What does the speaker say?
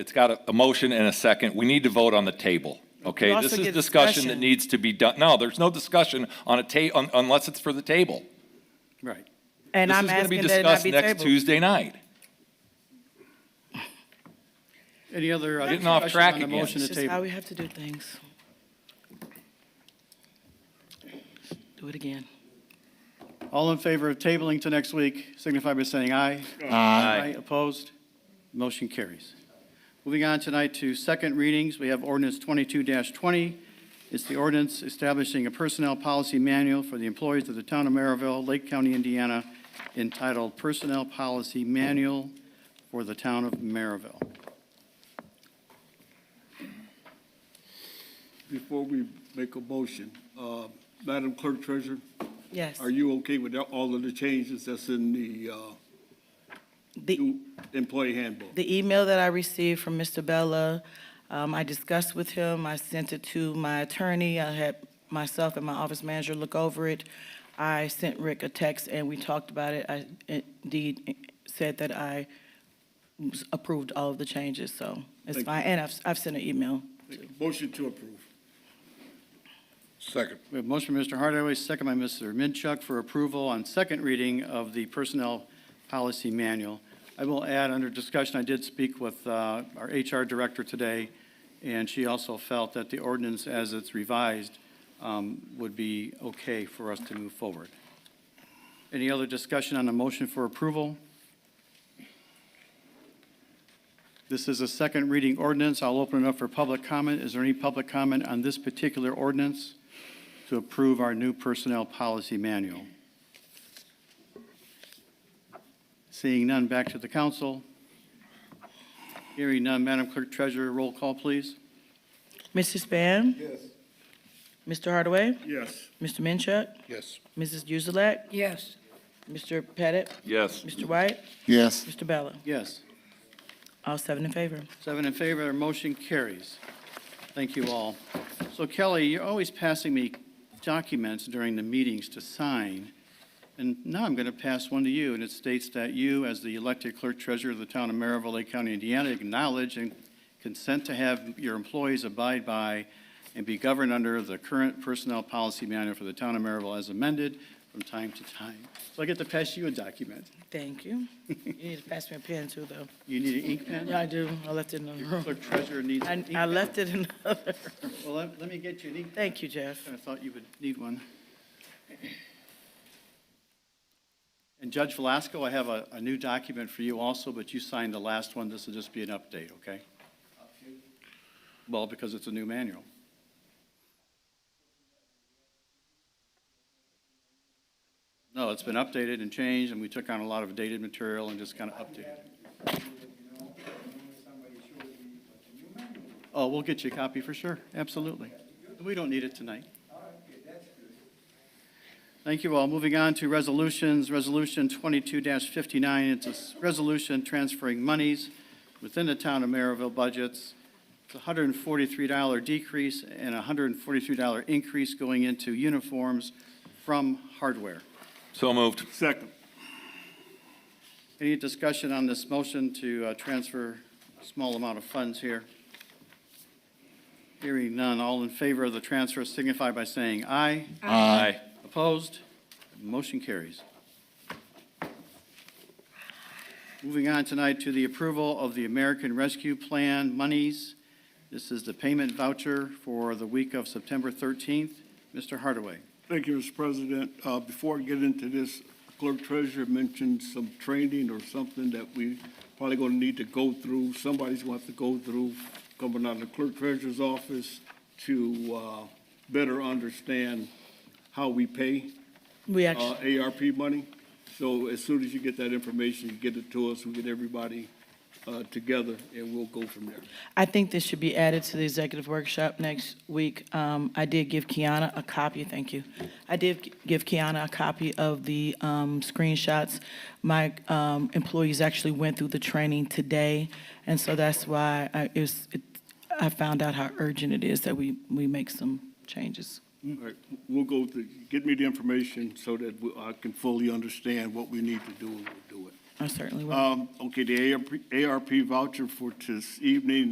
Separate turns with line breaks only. it's got a, a motion and a second. We need to vote on the table, okay?
also
This is
get
discussion that
discussion.
needs to be done. No, there's no discussion on a ta, un- unless it's for the table.
Right.
And I'm asking that it not be
This is going to be discussed next
tabled.
Tuesday night.
Any other uh,
Getting off track
discussion on the
again.
motion to
It's just how
table?
we have to do things. Do it again.
All in favor of tabling to next week, signify by saying aye. Aye. Opposed? Motion carries. Moving on tonight to second readings, we have ordinance 22-20. It's the ordinance establishing a personnel policy manual for the employees of the town of Maryville, Lake County, Indiana, entitled Personnel Policy Manual for the Town of Maryville.
Before we make a motion, uh, Madam Clerk Treasurer,
Yes.
are you okay with all of the changes that's in the uh,
The,
new employee handbook?
the email that I received from Mr. Bella, um, I discussed with him. I sent it to my attorney. I had myself and my office manager look over it. I sent Rick a text and we talked about it. I indeed said that I approved all of the changes, so it's
Thank you.
fine. And I've, I've sent an email.
Motion to approve.
Second.
We have a motion by Mr. Hardaway, second by Mr. Minchuk for approval on second reading of the Personnel Policy Manual. I will add, under discussion, I did speak with uh, our HR Director today, and she also felt that the ordinance as it's revised um, would be okay for us to move forward. Any other discussion on the motion for approval? This is a second reading ordinance. I'll open it up for public comment. Is there any public comment on this particular ordinance? to approve our new personnel policy manual. Seeing none, back to the council. Hearing none, Madam Clerk Treasurer, roll call, please.
Mr. Span?
Yes.
Mr. Hardaway?
Yes.
Mr. Minchuk?
Yes.
Mrs. Uzelak? Yes. Mr. Pettit?
Yes.
Mr. White?
Yes.
Mr. Bella?
Yes,
All seven in favor.
seven in favor, our motion carries. Thank you all. So Kelly, you're always passing me documents during the meetings to sign, and now I'm going to pass one to you, and it states that you, as the elected clerk treasurer of the town of Maryville, Lake County, Indiana, acknowledge and consent to have your employees abide by and be governed under the current personnel policy manual for the town of Maryville as amended from time to time. So I get to pass you a document.
Thank you. You need to pass me a pen too, though.
You need an ink pen?
Yeah, I do. I left it in the room.
Clerk treasurer needs an
I,
ink
I
pen.
left it in the other.
Well, let let me get you an ink pen.
Thank you, Jeff.
I thought you would need one. And Judge Velasco, I have a, a new document for you also, but you signed the last one. This will just be an update, okay? Well, because it's a new manual. No, it's been updated and changed, and we took on a lot of dated material and just kind of updated. Oh, we'll get you a copy for sure, absolutely. We don't need it tonight. Thank you all. Moving on to resolutions, Resolution 22-59, it's a s- resolution transferring monies within the town of Maryville budgets. It's a $143 decrease and a $143 increase going into uniforms from hardware.
So moved.
Second.
Any discussion on this motion to uh, transfer a small amount of funds here? Hearing none, all in favor of the transfer signify by saying aye.
Aye.
Opposed? Motion carries. Moving on tonight to the approval of the American Rescue Plan monies. This is the payment voucher for the week of September 13th. Mr. Hardaway.
Thank you, Mr. President. Uh, Before I get into this, Clerk Treasurer mentioned some training or something that we probably going to need to go through. Somebody's going to have to go through coming out of the Clerk Treasurer's office to uh, better understand how we pay
We
uh,
actually,
ARP money. So as soon as you get that information, you get it to us, we get everybody uh, together, and we'll go from there.
I think this should be added to the executive workshop next week. Um, I did give Kiana a copy, thank you. I did gi- give Kiana a copy of the, um, screenshots. My, um, employees actually went through the training today, and so that's why I, it's, it, I found out how urgent it is that we, we make some changes.
Mm. All right, we'll go, through- get me the information so that we- I can fully understand what we need to do, and we'll do it.
I certainly will.
Um, Okay, the ARP voucher for this evening